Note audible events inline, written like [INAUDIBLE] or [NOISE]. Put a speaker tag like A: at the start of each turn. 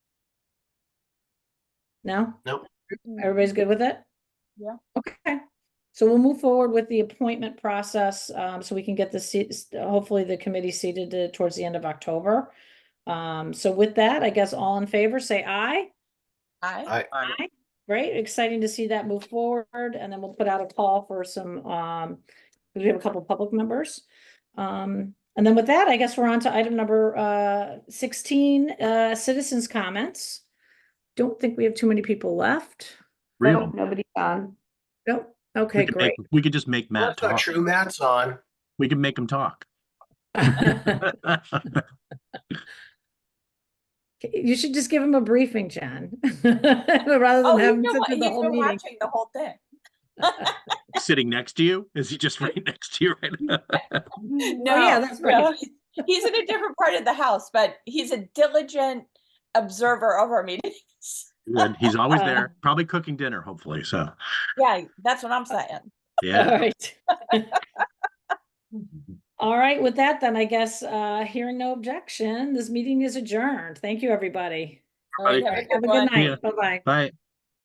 A: No?
B: Nope.
A: Everybody's good with it?
C: Yeah.
A: Okay, so we'll move forward with the appointment process, um, so we can get the seats, hopefully the committee seated to- towards the end of October. Um, so with that, I guess all in favor, say aye.
C: Aye.
B: Aye.
A: Great, exciting to see that move forward, and then we'll put out a call for some, um, we have a couple public members. Um, and then with that, I guess we're on to item number, uh, sixteen, uh, citizens' comments. Don't think we have too many people left.
D: Real.
E: Nobody's on.
A: Nope,
D: We
A: Oh, okay,
D: could
A: great.
D: make- We could just make
B: Well,
D: Matt
B: That's not
D: talk.
B: true. Matt's on.
D: We can make him [LAUGHS] talk.
A: [LAUGHS]
D: [LAUGHS]
A: You should just give him a briefing, [LAUGHS] John. Rather
C: Oh,
A: than having
C: he's been
A: to
C: wa-
A: do
C: he's
A: the whole
C: been
A: meeting.
C: watching the whole thing.
D: Sitting next to you? Is he just right [LAUGHS] next to you right now?
C: No,
A: yeah, that's right.
C: no, he's- [LAUGHS] He's in a different part of the house, but he's a diligent observer of our meetings. [LAUGHS]
D: Good. He's always
A: Uh.
D: there, probably cooking dinner, hopefully. So,
C: Yeah, that's what I'm saying.
D: [LAUGHS] yeah.
A: All right.
D: [LAUGHS]
A: All right, with that then, I guess, uh, hearing no objection, this meeting is adjourned. Thank you, everybody.
C: All right, have
D: Right.
C: a
A: Have a
C: one.
A: good
D: Yeah.
A: night. Bye-bye.
D: Bye.